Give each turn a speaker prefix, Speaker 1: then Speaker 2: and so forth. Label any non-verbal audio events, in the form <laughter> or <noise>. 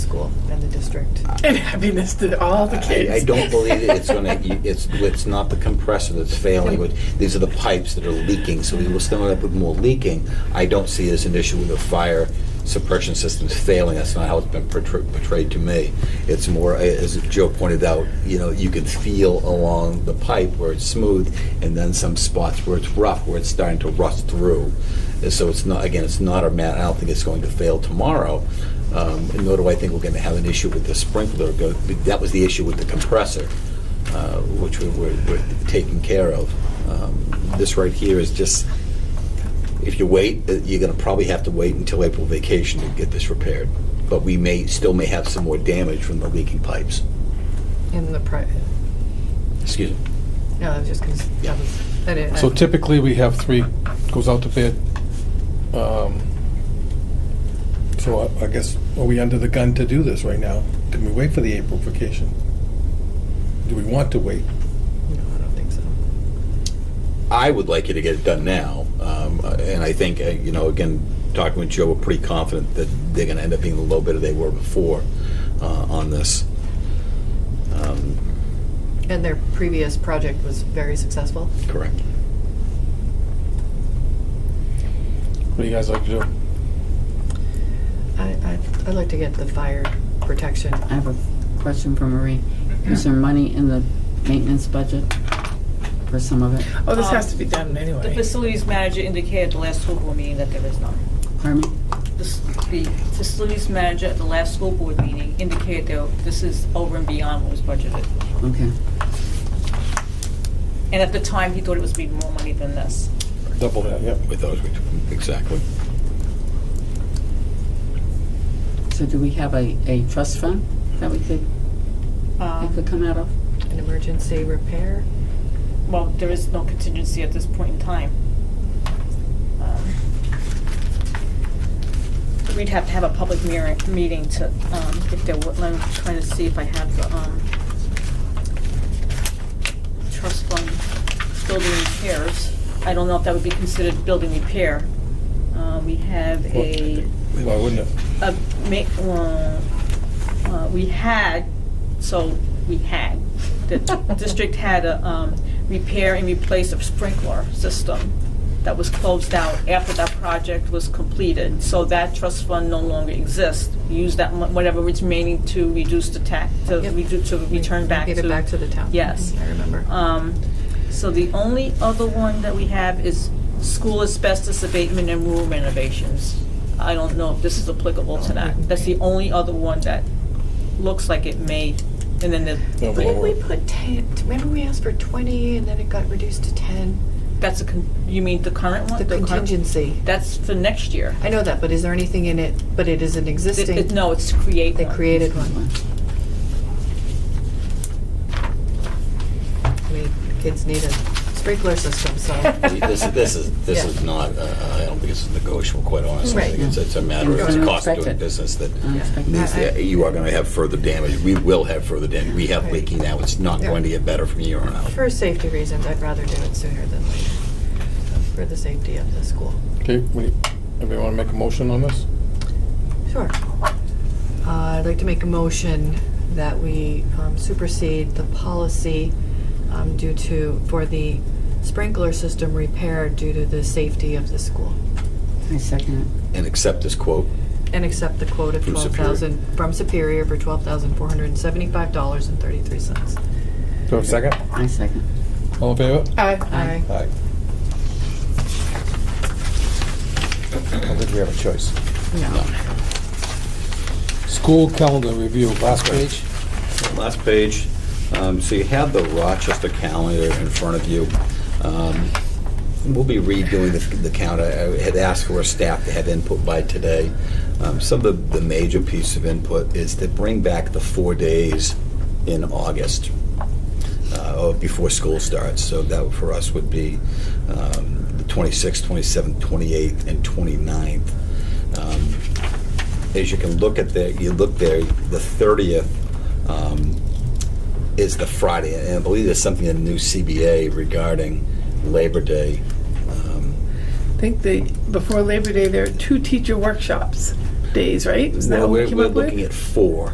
Speaker 1: school and the district.
Speaker 2: and happiness to all the kids.
Speaker 3: I, I don't believe it. it's going to. It's it's not the compressor that's failing. But these are the pipes that are leaking. So we will still end up with more leaking. I don't see it as an issue with the fire suppression systems failing. That's not how it's been portray- portrayed to me. It's more, as Joe pointed out, you know, you can feel along the pipe where it's smooth, and then some spots where it's rough, where it's starting to rust through. And so it's not. Again, it's not a mat. I don't think it's going to fail tomorrow. Um, nor do I think we're going to have an issue with the sprinkler. Go- That was the issue with the compressor, uh, which we we're, we're taking care of. Um, this right here is just, if you wait, uh, you're going to probably have to wait until April vacation to get this repaired. But we may, still may have some more damage from the leaking pipes.
Speaker 1: In the private,
Speaker 3: Excuse me.
Speaker 1: no, I was just because that was, that is.
Speaker 4: So typically, we have three, goes out to bid. Um, So I I guess, are we under the gun to do this right now? Can we wait for the April vacation? Do we want to wait?
Speaker 1: No, I don't think so.
Speaker 3: I would like you to get it done now, um, uh, and I think, uh, you know, again, talking with Joe, we're pretty confident that they're going to end up being the low bidder they were before uh, on this. Um,
Speaker 1: And their previous project was very successful.
Speaker 3: Correct.
Speaker 4: What do you guys like to do?
Speaker 1: I, I, I'd like to get the fire protection.
Speaker 5: I have a question for Marie. Is there money in the maintenance budget for some of it?
Speaker 2: oh, this
Speaker 6: Um,
Speaker 2: has to be done anyway.
Speaker 6: The facilities manager indicated at the last school board meeting that there is none.
Speaker 5: Pardon me?
Speaker 6: The s- the facilities manager at the last school board meeting indicated that this is over and beyond what was budgeted.
Speaker 5: Okay.
Speaker 6: And at the time, he thought it was be more money than this.
Speaker 4: Double that, yep.
Speaker 3: With those, we- exactly.
Speaker 5: So do we have a, a trust fund that we could, that could
Speaker 6: Um,
Speaker 5: come out of?
Speaker 1: An emergency repair?
Speaker 6: Well, there is no contingency at this point in time. Um, We'd have to have a public mirror- meeting to, um, if there were, I'm trying to see if I have the um, trust fund building repairs. I don't know if that would be considered building repair. Uh, We have a
Speaker 4: Why wouldn't it?
Speaker 6: a ma- uh, uh, we had, so we had,
Speaker 1: <laughs>
Speaker 6: the district had a um, repair and replace of sprinkler system that was closed out after that project was completed. So that trust fund no longer exists. We Use that, mon- whatever is remaining to reduce the tax, to
Speaker 1: Yep.
Speaker 6: reduce, to return back to.
Speaker 1: Get it back to the town.
Speaker 6: Yes.
Speaker 1: I remember.
Speaker 6: Um, So the only other one that we have is school asbestos abatement and room renovations. I don't know if this is applicable to that. That's the only other one that looks like it may, and then the,
Speaker 4: No,
Speaker 1: Why did we
Speaker 4: well,
Speaker 1: put ten, remember we asked for twenty and then it got reduced to ten?
Speaker 6: that's a, con- you mean the current one?
Speaker 1: The
Speaker 6: current-
Speaker 1: contingency.
Speaker 6: That's for next year.
Speaker 1: I know that, but is there anything in it, but it is an
Speaker 6: It-
Speaker 1: existing?
Speaker 6: it- No, it's to create
Speaker 1: They
Speaker 6: one.
Speaker 1: created one. I mean, kids need a sprinkler system, so.
Speaker 3: <laughs> We- This, this is, this
Speaker 1: Yeah.
Speaker 3: is not, uh, I don't think it's negotiable, quite honestly. I think
Speaker 1: Right.
Speaker 3: it's, it's a matter
Speaker 1: You're
Speaker 3: of the
Speaker 1: gonna
Speaker 3: cost of
Speaker 5: affect
Speaker 3: doing
Speaker 5: it.
Speaker 3: business that
Speaker 5: Unexpected.
Speaker 3: means
Speaker 1: I- I-
Speaker 3: that you are gonna have further damage. We will have further damage. We have
Speaker 1: Right.
Speaker 3: leaking now. It's not
Speaker 1: Yeah.
Speaker 3: going to get better from here on out.
Speaker 1: For safety reasons, I'd rather do it sooner than later, for the safety of the school.
Speaker 4: Okay, we- everybody want to make a motion on this?
Speaker 1: Sure. Uh, I'd like to make a motion that we um, supersede the policy um, due to, for the sprinkler system repair due to the safety of the school.
Speaker 5: I second it.
Speaker 3: And accept this quote.
Speaker 1: And accept the quote of
Speaker 3: From
Speaker 1: twelve
Speaker 3: Superior.
Speaker 1: thousand, from Superior for twelve thousand four hundred and seventy-five dollars and thirty-three cents.
Speaker 4: Do I have a second? Uh,
Speaker 5: I second.
Speaker 4: All in favor?
Speaker 1: Aye.
Speaker 3: I
Speaker 4: Aye.
Speaker 3: don't think we have a choice.
Speaker 1: No.
Speaker 4: School calendar review, last page.
Speaker 3: Last page. Um, So you have the Rochester calendar in front of you. Um, We'll be redoing the- the count. I I had asked for staff to have input by today. Um, Some of the the major piece of input is to bring back the four days in August uh, or before school starts. So that for us would be um, the 26th, 27th, 28th, and 29th. Um, As you can look at the, you look there, the 30th um, is the Friday, and I believe there's something in the new CBA regarding Labor Day. Um,
Speaker 2: I think they, before Labor Day, there are two teacher workshops. days, right? Isn't that
Speaker 3: Well,
Speaker 2: what we
Speaker 3: we're
Speaker 2: came
Speaker 3: we're
Speaker 2: up with?
Speaker 3: looking at four.